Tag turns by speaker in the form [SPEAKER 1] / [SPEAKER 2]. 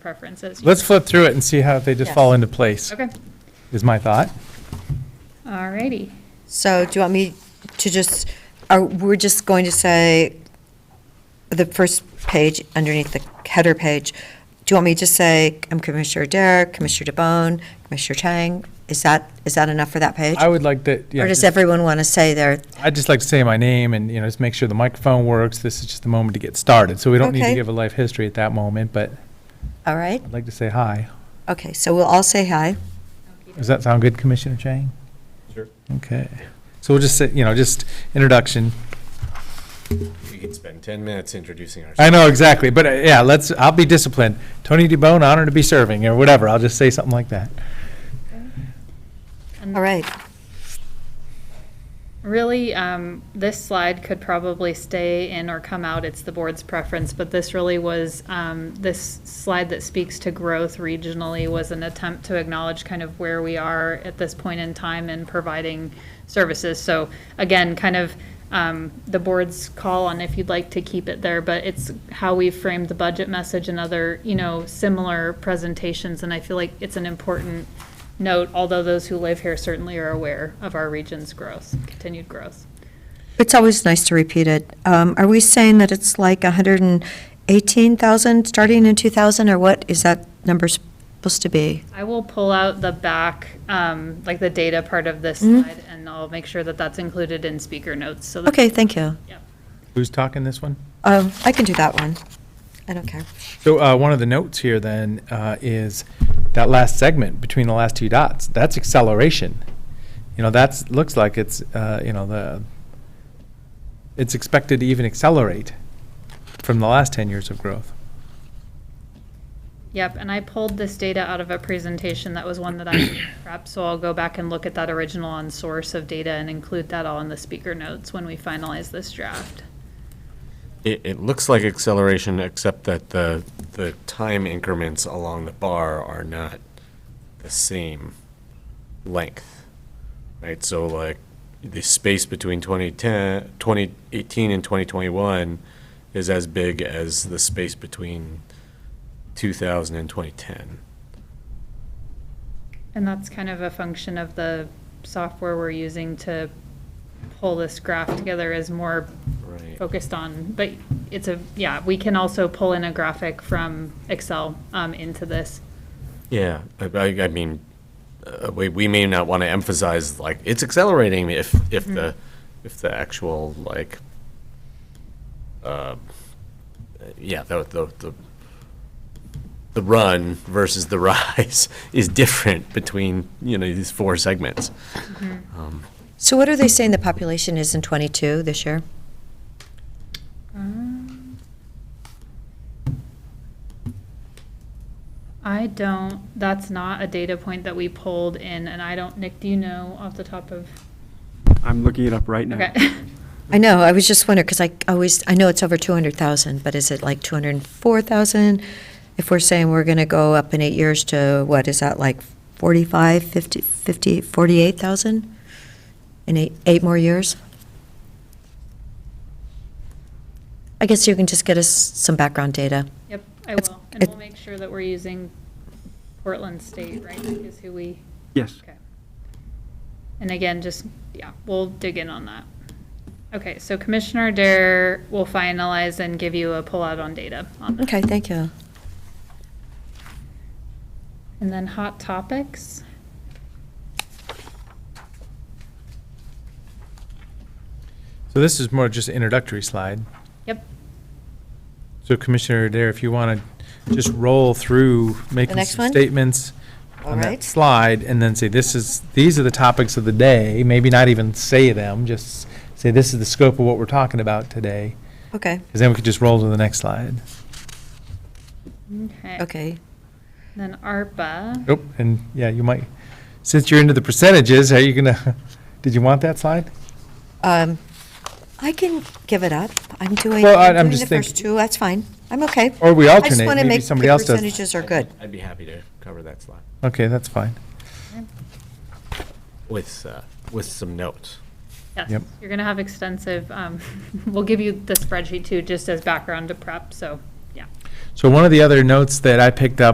[SPEAKER 1] preferences.
[SPEAKER 2] Let's flip through it and see how they just
[SPEAKER 3] Yeah.
[SPEAKER 2] fall into place,
[SPEAKER 1] Okay,
[SPEAKER 2] is my thought.
[SPEAKER 1] all righty.
[SPEAKER 3] So do you want me to just, are, we're just going to say, the first page underneath the header page, do you want me to just say, I'm Commissioner Derrick, Commissioner DeBonne, Commissioner Chang? Is that, is that enough for that page?
[SPEAKER 2] I would like that,
[SPEAKER 3] Or
[SPEAKER 2] yeah,
[SPEAKER 3] does
[SPEAKER 2] just-
[SPEAKER 3] everyone want to say their,
[SPEAKER 2] I'd just like to say my name and, you know, just make sure the microphone works. This is just the moment to get started. So we don't need to
[SPEAKER 3] Okay.
[SPEAKER 2] give a life history at that moment, but
[SPEAKER 3] all right?
[SPEAKER 2] I'd like to say hi.
[SPEAKER 3] Okay, so we'll all say hi.
[SPEAKER 2] Does that sound good, Commissioner Chang?
[SPEAKER 4] Sure.
[SPEAKER 2] Okay. So we'll just say, you know, just introduction.
[SPEAKER 4] We could spend 10 minutes introducing ourselves.
[SPEAKER 2] I know, exactly, but uh, yeah, let's, I'll be disciplined. Tony DeBonne, honored to be serving, or whatever. I'll just say something like that.
[SPEAKER 1] And
[SPEAKER 3] All right,
[SPEAKER 1] Really, um, this slide could probably stay in or come out. It's the board's preference, but this really was, um, this slide that speaks to growth regionally was an attempt to acknowledge kind of where we are at this point in time in providing services. So again, kind of, um, the board's call on if you'd like to keep it there, but it's how we framed the budget message and other, you know, similar presentations. And I feel like it's an important note, although those who live here certainly are aware of our region's growth, continued growth.
[SPEAKER 3] it's always nice to repeat it. Um, Are we saying that it's like 118,000 starting in 2000, or what is that number supposed to be?
[SPEAKER 1] I will pull out the back, um, like the data part of this
[SPEAKER 3] Mm-hmm.
[SPEAKER 1] slide, and I'll make sure that that's included in speaker notes, so that,
[SPEAKER 3] Okay, thank you.
[SPEAKER 2] Who's talking this one?
[SPEAKER 3] Um, I can do that one. I don't care.
[SPEAKER 2] So uh, one of the notes here then uh, is that last segment between the last two dots. That's acceleration. You know, that's looks like it's uh, you know the it's expected to even accelerate from the last ten years of growth.
[SPEAKER 1] yep, and I pulled this data out of a presentation, that was one that I prepped, so I'll go back and look at that original on source of data and include that all in the speaker notes when we finalize this draft.
[SPEAKER 4] It, it looks like acceleration, except that the, the time increments along the bar are not the same length, right? So like, the space between 2010, 2018 and 2021 is as big as the space between 2000 and 2010.
[SPEAKER 1] And that's kind of a function of the software we're using to pull this graph together is more
[SPEAKER 4] Right.
[SPEAKER 1] focused on, but it's a, yeah, we can also pull in a graphic from Excel um, into this.
[SPEAKER 4] Yeah, I, I, I mean, uh, we, we may not want to emphasize like it's accelerating if if the if the actual like, uh, yeah, the the the the run versus the rise is different between you know these four segments.
[SPEAKER 3] So what are they saying the population is in 22 this year?
[SPEAKER 1] Um, I don't, that's not a data point that we pulled in, and I don't, Nick, do you know off the top of?
[SPEAKER 5] I'm looking it up right now.
[SPEAKER 1] Okay.
[SPEAKER 3] I know, I was just wondering, because I always, I know it's over 200,000, but is it like 204,000? If we're saying we're going to go up in eight years to, what, is that like 45, 50, 50, 48,000? In eight, eight more years? I guess you can just get us some background data.
[SPEAKER 1] Yep, I
[SPEAKER 3] It's-
[SPEAKER 1] will. And we'll
[SPEAKER 3] it-
[SPEAKER 1] make sure that we're using Portland State, right, Nick, is who we,
[SPEAKER 5] Yes.
[SPEAKER 1] okay. And again, just, yeah, we'll dig in on that. Okay, so Commissioner Dare will finalize and give you a pullout on data on that.
[SPEAKER 3] Okay, thank you.
[SPEAKER 1] And then hot topics?
[SPEAKER 2] So this is more just an introductory slide.
[SPEAKER 1] Yep.
[SPEAKER 2] So Commissioner Dare, if you want to just roll through making
[SPEAKER 3] next
[SPEAKER 2] some
[SPEAKER 3] one?
[SPEAKER 2] statements
[SPEAKER 3] All
[SPEAKER 2] on that
[SPEAKER 3] right.
[SPEAKER 2] slide and then say, this is, these are the topics of the day, maybe not even say them, just say, this is the scope of what we're talking about today.
[SPEAKER 3] Okay,
[SPEAKER 2] Because then we could just roll to the next slide.
[SPEAKER 1] Okay.
[SPEAKER 3] okay.
[SPEAKER 1] Then ARPA.
[SPEAKER 2] Nope, and yeah, you might, since you're into the percentages, are you gonna, did you want that slide?
[SPEAKER 3] Um, I can give it up. I'm doing,
[SPEAKER 2] Well, I-
[SPEAKER 3] I'm
[SPEAKER 2] I'm
[SPEAKER 3] doing the
[SPEAKER 2] just think-
[SPEAKER 3] first two, that's fine. I'm okay.
[SPEAKER 2] Or we
[SPEAKER 3] I just
[SPEAKER 2] alternate,
[SPEAKER 3] want to
[SPEAKER 2] maybe
[SPEAKER 3] make the
[SPEAKER 2] somebody else does.
[SPEAKER 3] percentages are good.
[SPEAKER 4] I'd be happy to cover that slide
[SPEAKER 2] Okay, that's fine.
[SPEAKER 4] with uh, with some notes.
[SPEAKER 1] Yes,
[SPEAKER 2] Yep.
[SPEAKER 1] you're going to have extensive, um, we'll give you the spreadsheet too, just as background to prep, so, yeah.
[SPEAKER 2] So one of the other notes that I picked up